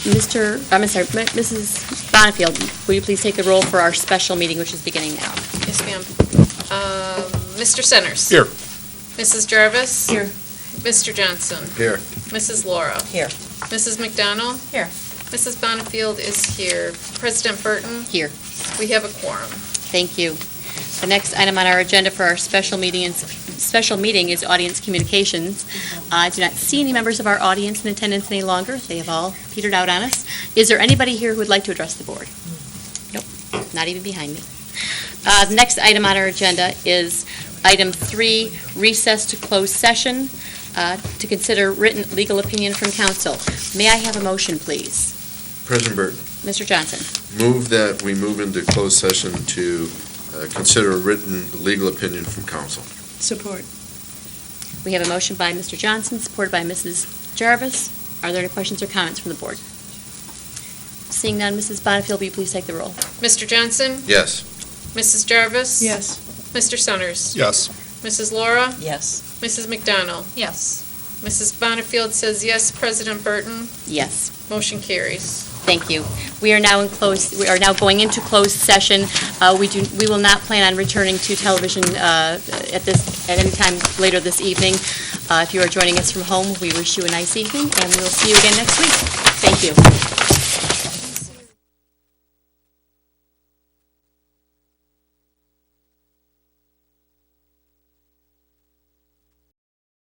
Mr., I'm sorry, M- Mrs. Bonnefield, will you please take the roll for our special meeting, which is beginning now? Yes, ma'am. Um, Mr. Centers? Here. Mrs. Jarvis? Here. Mr. Johnson? Here. Mrs. Laura? Here. Mrs. McDonald? Here. Mrs. Bonnefield is here. President Burton, Here, we have a quorum. thank you. The next item on our agenda for our special meeting is, special meeting is audience communications. Uh, I do not see any members of our audience in attendance any longer. They have all petered out on us. Is there anybody here who would like to address the board? Nope, not even behind me. Uh, The next item on our agenda is item three, recess to close session uh, to consider written legal opinion from council. May I have a motion, please? President Burton, Mr. Johnson? move that we move into closed session to uh, consider a written legal opinion from counsel. Support. We have a motion by Mr. Johnson, supported by Mrs. Jarvis. Are there any questions or comments from the board? Seeing none, Mrs. Bonnefield, will you please take the roll? Mr. Johnson? Yes. Mrs. Jarvis? Yes. Mr. Centers? Yes. Mrs. Laura? Yes. Mrs. McDonald? Yes. Mrs. Bonnefield says yes. President Burton, Yes, motion carries. thank you. We are now in close, we are now going into closed session. Uh, We do, we will not plan on returning to television uh, at this, at any time later this evening. Uh, If you are joining us from home, we wish you a nice evening, and we will see you again next week. Thank you.